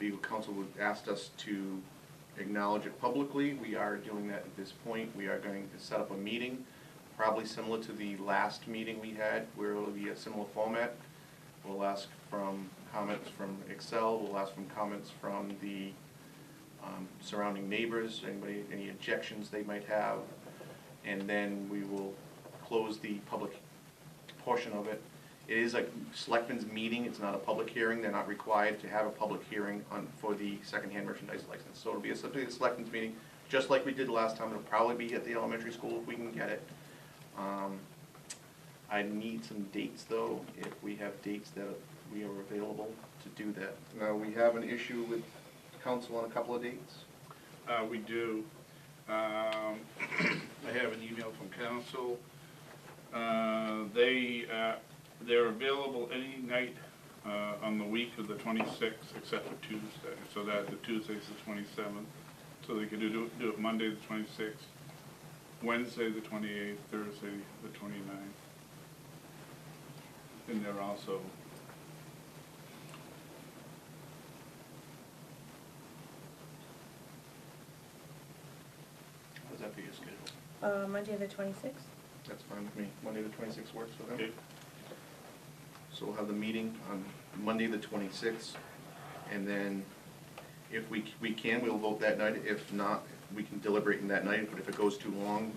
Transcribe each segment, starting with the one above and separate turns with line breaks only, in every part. legal counsel would asked us to acknowledge it publicly. We are doing that at this point. We are going to set up a meeting, probably similar to the last meeting we had, where it'll be a similar format. We'll ask from comments from Excel, we'll ask from comments from the um, surrounding neighbors, anybody, any objections they might have. And then we will close the public portion of it. It is a selectmen's meeting, it's not a public hearing, they're not required to have a public hearing on, for the secondhand merchandise license. So it'll be a, simply a selectmen's meeting, just like we did last time, it'll probably be at the elementary school if we can get it. Um, I need some dates though, if we have dates that we are available to do that. Now, we have an issue with council on a couple of dates.
Uh, we do. Um, I have an email from council. Uh, They, uh, they're available any night uh, on the week of the 26th except for Tuesday. So that, the Tuesday's the 27th. So they could do, do it Monday, the 26th, Wednesday, the 28th, Thursday, the 29th. And they're also,
How's that for your schedule?
Uh, Monday the twenty-sixth?
That's fine with me. Monday, the twenty-sixth works for them?
okay,
So we'll have the meeting on Monday, the twenty-sixth, and then if we, we can, we'll vote that night. If not, we can deliberate in that night, but if it goes too long,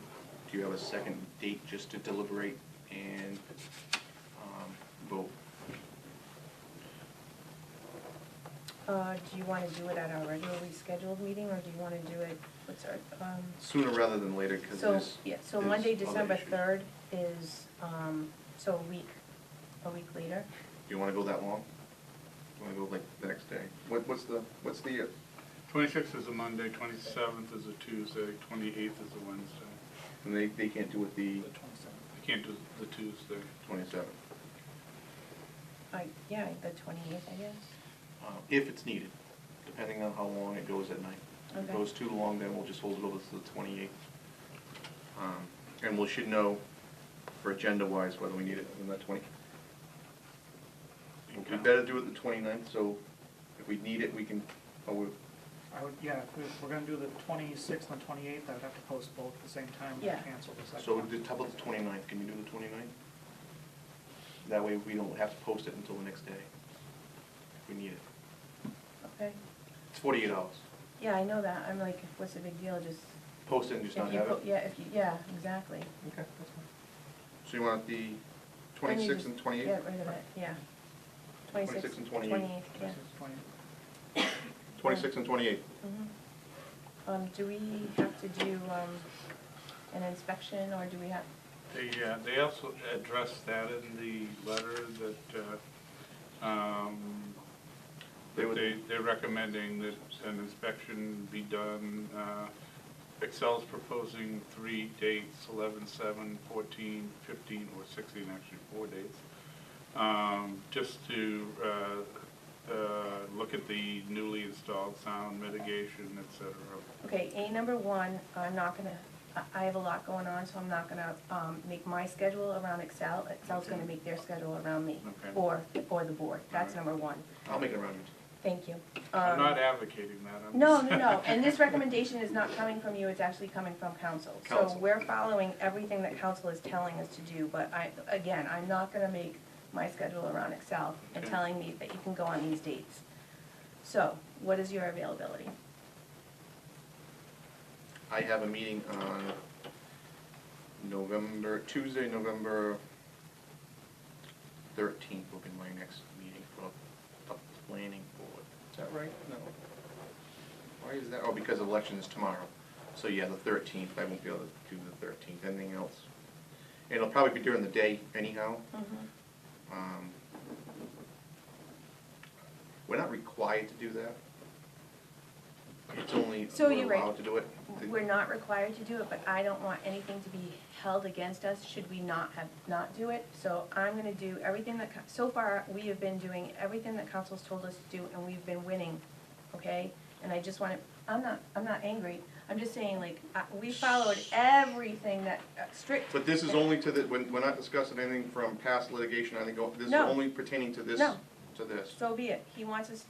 do you have a second date just to deliberate and, um, vote?
Uh, do you wanna do it at our regularly scheduled meeting, or do you wanna do it, what's our, um,
Sooner rather than later, because
so,
there's.
yeah, so
there's
Monday,
other
December
issues.
third is, um, so a week, a week later.
Do you wanna go that long? Do you wanna go like the next day? What, what's the, what's the, uh,
26th is a Monday, 27th is a Tuesday, 28th is a Wednesday.
and they, they can't do it the
I can't do the Tuesday.
twenty-seventh,
I, yeah, the twenty-eighth, I guess.
uh, if it's needed, depending on how long it goes at night. If it
Okay.
goes too long, then we'll just hold it over to the twenty-eighth. Um, and we should know for agenda-wise whether we need it on the twenty. We
Okay.
better do it the 29th. so if we need it, we can, oh, we,
I would, yeah, if we- if we're gonna do the twenty-sixth and twenty-eighth, I would have to post both at the same time
Yeah.
and cancel the second
So
one.
the, how about the 29th? can you do the 29th? That way we don't have to post it until the next day, if we need it.
Okay,
It's forty-eight hours,
yeah, I know that, I'm like, what's the big deal, just,
post it and
if
just
you,
not have
po-
it.
yeah, if you, yeah, exactly.
Okay, that's fine. So you want the
Then you
twenty-sixth
just
and twenty-eighth?
Get rid of it, yeah.
26th
Twenty-sixth,
and
twenty-eighth,
28th.
yeah.
26th, 28th.
Twenty-sixth and twenty-eighth,
Mhm. Um, do we have to do, um, an inspection, or do we have,
They, uh, they also addressed that in the letter that, uh, um,
They
that
would-
they, they're recommending that an inspection be done. Uh, Excel's proposing three dates, eleven, seven, fourteen, fifteen, or sixteen, actually four dates. Um, just to, uh, uh, look at the newly installed sound mitigation, et cetera.
okay, A number one, I'm not gonna, I, I have a lot going on, so I'm not gonna, um, make my schedule around Excel. Excel's gonna make their schedule around me,
Okay.
or, or the board, that's
Alright.
number one,
I'll make it around you.
thank you.
I'm
Um,
not advocating that, I'm.
No,
just-
no, no, and this recommendation is not coming from you, it's actually coming from council. So
Council.
we're following everything that council is telling us to do, but I, again, I'm not gonna make my schedule around Excel and
Okay.
telling me that you can go on these dates. So, what is your availability?
I have a meeting on November, Tuesday, November thirteenth will be my next meeting for the planning board. Is that right? No. Why is that? Oh, because election is tomorrow. So, yeah, the thirteenth, I won't be able to do the thirteenth, anything else. And it'll probably be during the day anyhow. Um, We're not required to do that. It's only,
So
we're
you're right.
allowed to do it. The-
We're not required to do it, but I don't want anything to be held against us should we not have, not do it. So I'm gonna do everything that, co- so far, we have been doing everything that council's told us to do, and we've been winning, okay? And I just wanna, I'm not, I'm not angry, I'm just saying, like, I- we followed everything that, uh, strict.
But this is only to the, we're, we're not discussing anything from past litigation, I think, oh, this is
No.
only pertaining to this,
No.
to this.
So be it, he wants us